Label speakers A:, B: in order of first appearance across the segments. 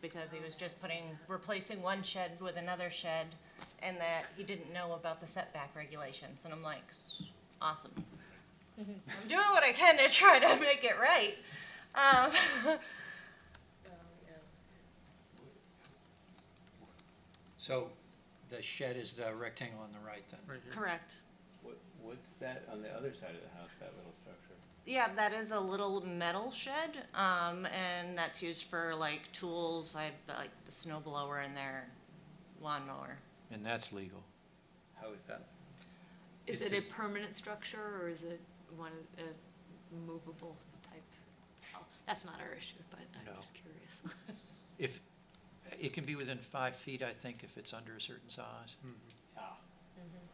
A: because he was just putting, replacing one shed with another shed, and that he didn't know about the setback regulations, and I'm like, "S- awesome. I'm doing what I can to try to make it right. Um,
B: So the shed is the rectangle on the right then?
C: Right here.
A: Correct.
D: What, what's that on the other side of the house, that little structure?
A: Yeah, that is a little metal shed, um, and that's used for like tools, I have the, like the snow blower in there, lawnmower.
B: And that's legal.
D: How is that?
E: Is
D: It's
E: it a
D: just-
E: permanent structure or is it one, of- a movable type? Oh, That's not our issue, but
B: No.
E: I'm just curious.
B: If, it can be within five feet, I think, if it's under a certain size.
C: Hmm.
D: Ah,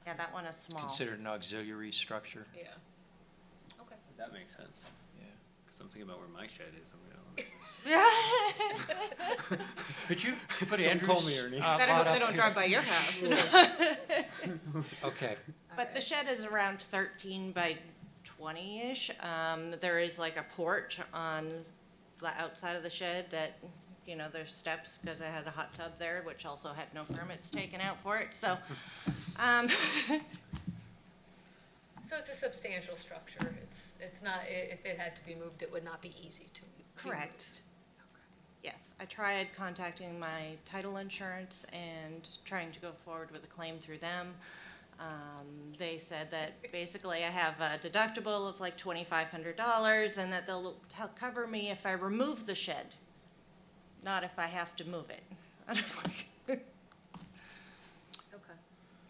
A: Yeah, that one is small.
B: Considered an auxiliary structure,
E: Yeah.
D: that makes sense,
B: yeah.
D: cause I'm thinking about where my shed is, I'm gonna.
A: Yeah.
B: Could you could put
D: Don't
B: Andrew's?
D: call me, Ernie.
B: uh, lot up here?
E: by your house.
B: Okay,
A: But the shed is around thirteen by twenty-ish. Um, there is like a porch on the outside of the shed that, you know, there's steps because I had a hot tub there, which also had no permits taken out for it, so. Um,
E: So it's a substantial structure. It's, it's not, i- if it had to be moved, it would not be easy to be moved.
A: Correct. yes, I tried contacting my title insurance and trying to go forward with a claim through them. Um, they said that basically I have a deductible of like twenty-five hundred dollars and that they'll help cover me if I remove the shed, not if I have to move it. And I'm like,
E: Okay.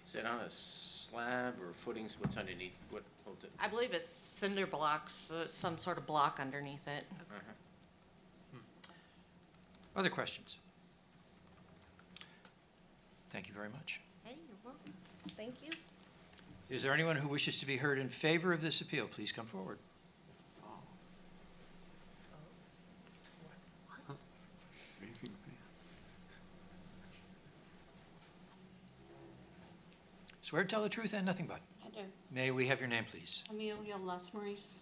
F: Is it on a slab or footings? What's underneath? What holds it?
A: I believe it's cinder blocks, uh, some sort of block underneath it.
B: other questions? Thank you very much.
A: Hey, you're welcome. Thank you.
B: Is there anyone who wishes to be heard in favor of this appeal? Please come forward. Swear to tell the truth and nothing but.
G: I do.
B: May we have your name, please?
G: Amelia Les Maurice.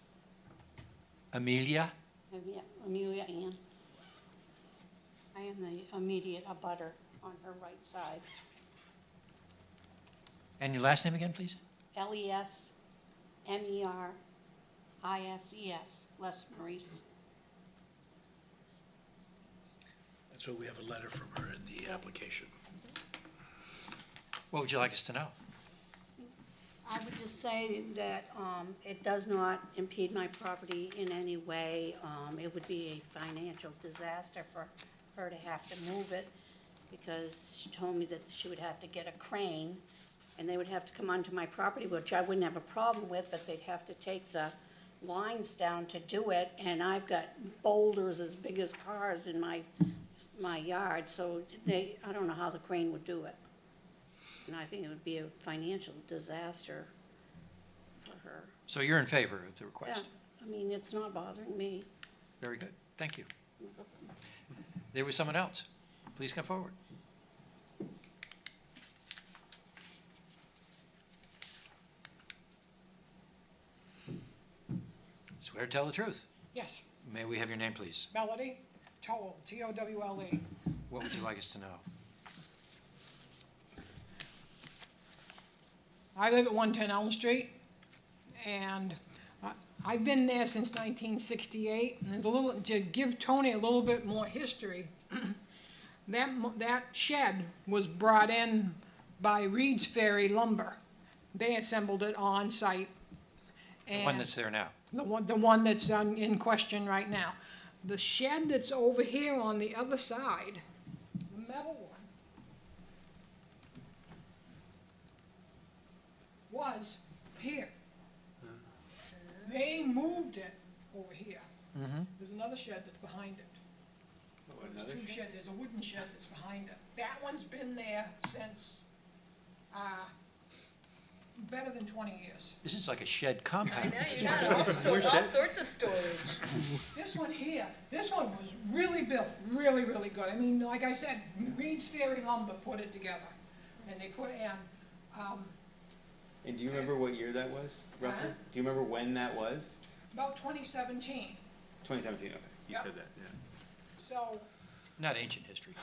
B: Amelia?
G: Amelia- Amelia Ann. I am the immediate abutter on her right side.
B: And your last name again, please?
G: L E S M E R I S E S, Les Maurice.
C: That's why we have a letter from her in the application.
B: What would you like us to know?
G: I would just say that um, it does not impede my property in any way. Um, It would be a financial disaster for her to have to move it because she told me that she would have to get a crane and they would have to come onto my property, which I wouldn't have a problem with, but they'd have to take the lines down to do it. And I've got boulders as big as cars in my, my yard, so they, I don't know how the crane would do it. And I think it would be a financial disaster for her.
B: So you're in favor of the request?
G: Yeah, I mean, it's not bothering me.
B: Very good, thank you. There was someone else. Please come forward. Swear to tell the truth.
H: Yes,
B: May we have your name, please?
H: Melody Towle, T-O-W-L-E.
B: What would you like us to know?
H: I live at 110 Elm Street, and I- I've been there since 1968. And there's a little, to give Tony a little bit more history, that, mo- that shed was brought in by Reed's Ferry Lumber. They assembled it on site.
B: The one
H: and-
B: that's there now.
H: The one, the one that's on, in question right now. The shed that's over here on the other side, the metal one, was here. They moved it over here.
B: Mm-hmm.
H: There's another shed that's behind it.
D: Oh,
H: There's
D: another
H: two
D: shed?
H: shed, there's a wooden shed that's behind it. That one's been there since, uh, better than twenty years.
B: This is like a shed compound.
E: all, all sorts of stories.
H: This one here, this one was really built, really, really good. I mean, like I said, Reed's Ferry Lumber put it together. And they put in, um,
D: And do you remember what year that was, roughly?
H: Huh?
D: Do you remember when that was?
H: about twenty seventeen.
D: Twenty seventeen, okay, you
H: Yeah.
D: said that, yeah.
H: So
B: not ancient history.